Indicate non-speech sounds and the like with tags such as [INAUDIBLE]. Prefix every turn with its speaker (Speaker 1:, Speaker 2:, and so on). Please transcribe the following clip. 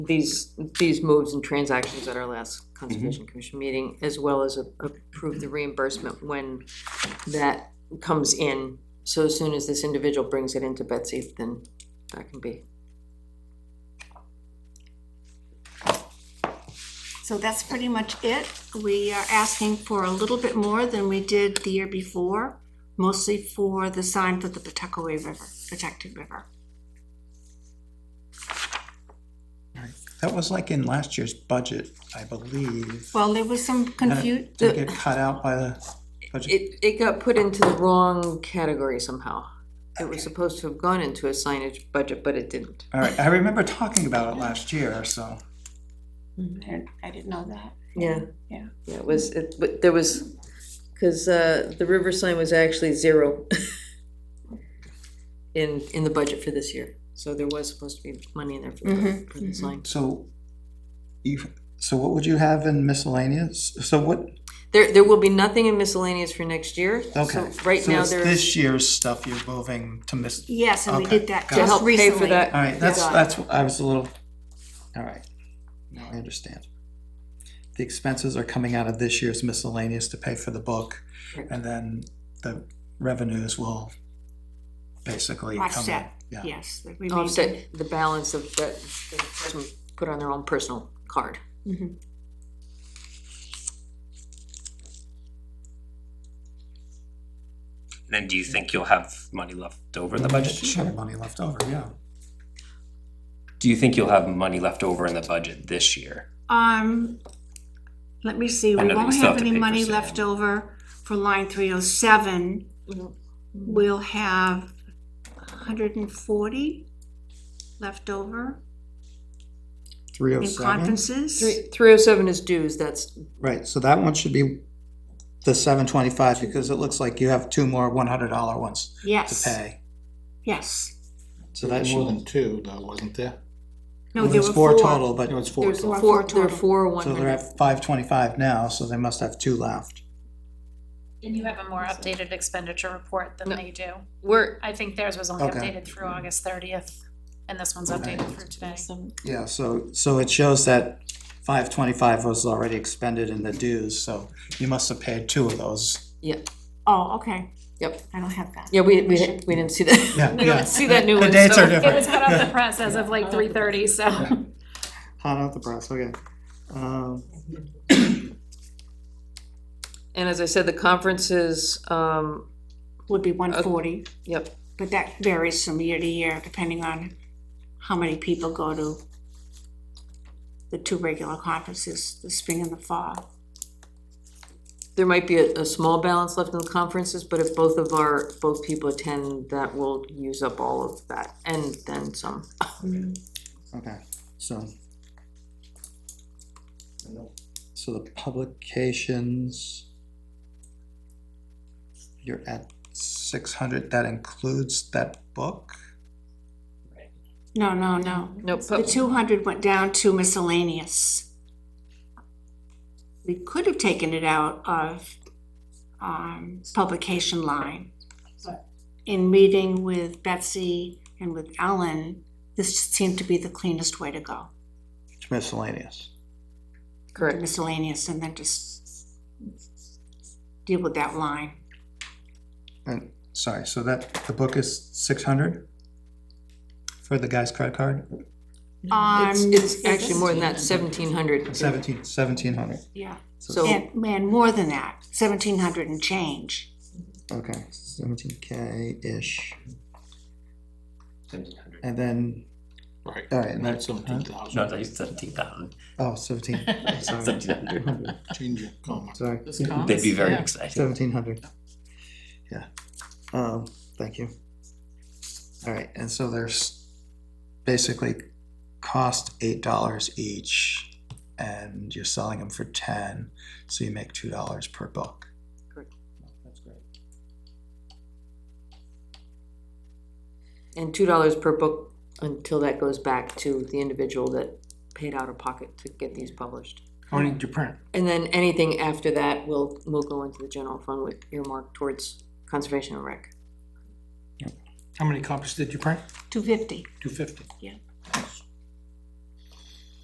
Speaker 1: these, these moves and transactions at our last Conservation Commission meeting, as well as a- approve the reimbursement when that comes in. So as soon as this individual brings it into Betsy, then that can be.
Speaker 2: So that's pretty much it. We are asking for a little bit more than we did the year before, mostly for the sign for the Pawtuckaway River, protected river.
Speaker 3: That was like in last year's budget, I believe.
Speaker 2: Well, there was some confusion.
Speaker 3: Did it get cut out by the budget?
Speaker 1: It, it got put into the wrong category somehow. It was supposed to have gone into a signage budget, but it didn't.
Speaker 3: All right, I remember talking about it last year, so.
Speaker 2: I didn't know that.
Speaker 1: Yeah.
Speaker 2: Yeah.
Speaker 1: Yeah, it was, it, but there was, cause, uh, the river sign was actually zero [LAUGHS] in, in the budget for this year, so there was supposed to be money in there for the,
Speaker 2: Mhm,
Speaker 1: for the
Speaker 2: mhm.
Speaker 1: sign.
Speaker 3: So, you, so what would you have in miscellaneous? So what,
Speaker 1: There, there will be nothing in miscellaneous for next year, so
Speaker 3: okay.
Speaker 1: right
Speaker 3: So
Speaker 1: now
Speaker 3: it's
Speaker 1: there, to
Speaker 3: This year's stuff you're moving to miss,
Speaker 2: Yes, and we
Speaker 3: Okay,
Speaker 2: did that
Speaker 3: got it. To
Speaker 2: just
Speaker 1: help pay for
Speaker 2: recently.
Speaker 3: all
Speaker 1: that.
Speaker 3: right, that's,
Speaker 2: got it.
Speaker 3: that's, I was a little, all right, now I understand. The expenses are coming out of this year's miscellaneous to pay for the book,
Speaker 1: Correct.
Speaker 3: and then the revenues will basically come in.
Speaker 2: Offset,
Speaker 3: Yeah.
Speaker 2: yes. the remaining-
Speaker 1: Offset the balance of that, the person put on their own personal card.
Speaker 2: Mhm.
Speaker 4: Then do you think you'll have money left over in the budget?
Speaker 3: Sure, money left over, yeah.
Speaker 4: Do you think you'll have money left over in the budget this year?
Speaker 2: Um, let me see,
Speaker 4: I
Speaker 2: we
Speaker 4: know that we
Speaker 2: won't
Speaker 4: still
Speaker 2: have
Speaker 4: have to
Speaker 2: any
Speaker 4: pay for
Speaker 2: money
Speaker 4: sand.
Speaker 2: left over for line three oh seven. We'll have hundred and forty left over
Speaker 3: Three oh
Speaker 2: in
Speaker 3: seven,
Speaker 2: conferences.
Speaker 1: Three, three oh seven is dues, that's,
Speaker 3: right, so that one should be the seven twenty-five, because it looks like you have two more one hundred dollar ones to
Speaker 2: Yes,
Speaker 3: pay.
Speaker 2: yes.
Speaker 3: So
Speaker 5: There
Speaker 3: that
Speaker 5: was More
Speaker 3: should,
Speaker 5: than two, though, wasn't there?
Speaker 3: well,
Speaker 2: No, there
Speaker 3: there's
Speaker 2: were
Speaker 3: four
Speaker 2: four.
Speaker 3: total, but,
Speaker 5: There was four.
Speaker 1: there's
Speaker 2: Four
Speaker 1: four, there are
Speaker 2: total.
Speaker 1: four oh one
Speaker 3: so they're
Speaker 1: hundred.
Speaker 3: at five twenty-five now, so they must have two left.
Speaker 6: And you have a more updated expenditure report than
Speaker 1: No.
Speaker 6: they do.
Speaker 1: We're,
Speaker 6: I think theirs was only
Speaker 3: Okay.
Speaker 6: updated through August thirtieth, and this one's
Speaker 3: Okay.
Speaker 6: updated through today.
Speaker 3: Yeah, so, so it shows that five twenty-five was already expended in the dues, so you must have paid two of those.
Speaker 2: Oh, okay.
Speaker 1: Yep.
Speaker 2: I don't have that.
Speaker 1: yeah, we, we, we didn't see that.
Speaker 3: Yeah,
Speaker 1: [LAUGHS] We
Speaker 3: yeah.
Speaker 1: don't see that new
Speaker 3: The
Speaker 1: one.
Speaker 3: dates
Speaker 1: so-
Speaker 3: are
Speaker 6: It was
Speaker 3: different.
Speaker 6: cut off the press as
Speaker 3: [LAUGHS]
Speaker 6: of like three thirty, so.
Speaker 3: Hot off the press, okay. Um,
Speaker 1: And as I said, the conferences, um,
Speaker 2: Would be one forty,
Speaker 1: yep,
Speaker 2: but that varies from year to year depending on how many people go to the two regular conferences, the spring and the fall.
Speaker 1: there might be a, a small balance left in the conferences, but if both of our, both people attend, that will use up all of that, and then some.
Speaker 3: Okay, so. So the publications. You're at six hundred, that includes that book?
Speaker 2: No, no, no.
Speaker 1: No,
Speaker 2: The
Speaker 1: pub-
Speaker 2: two hundred went down to miscellaneous. We could have taken it out of, um, publication line. but In meeting with Betsy and with Ellen, this seemed to be the cleanest way to go,
Speaker 3: It's miscellaneous.
Speaker 2: the
Speaker 1: correct,
Speaker 2: miscellaneous, and then just deal with that line.
Speaker 3: And, sorry, so that, the book is six hundred? For the guy's credit card?
Speaker 1: it's,
Speaker 2: Um,
Speaker 1: it's actually more than that, seventeen hundred.
Speaker 3: Seventeen, seventeen hundred,
Speaker 2: Yeah,
Speaker 1: So,
Speaker 2: and, and more than that, seventeen hundred and change.
Speaker 3: okay, seventeen K-ish.
Speaker 4: Seventeen hundred.
Speaker 3: And then,
Speaker 5: Right.
Speaker 3: all right, and
Speaker 5: Not
Speaker 3: that's,
Speaker 5: seventeen
Speaker 4: No,
Speaker 5: thousand.
Speaker 4: no, seventeen thousand.
Speaker 3: oh,
Speaker 4: [LAUGHS]
Speaker 3: seventeen, sorry,
Speaker 4: Seventeen hundred.
Speaker 5: Change your comma.
Speaker 3: sorry.
Speaker 4: They'd be very excited.
Speaker 3: Seventeen hundred. Yeah, um, thank you. All right, and so there's basically cost eight dollars each, and you're selling them for ten, so you make two dollars per book.
Speaker 1: Correct.
Speaker 3: That's great.
Speaker 1: and two dollars per book until that goes back to the individual that paid out of pocket to get these published.
Speaker 5: According to print.
Speaker 1: And then anything after that will, will go into the general fund with earmark towards conservation and rec.
Speaker 5: How many copies did you print?
Speaker 2: Two fifty.
Speaker 5: Two fifty.
Speaker 2: Yeah.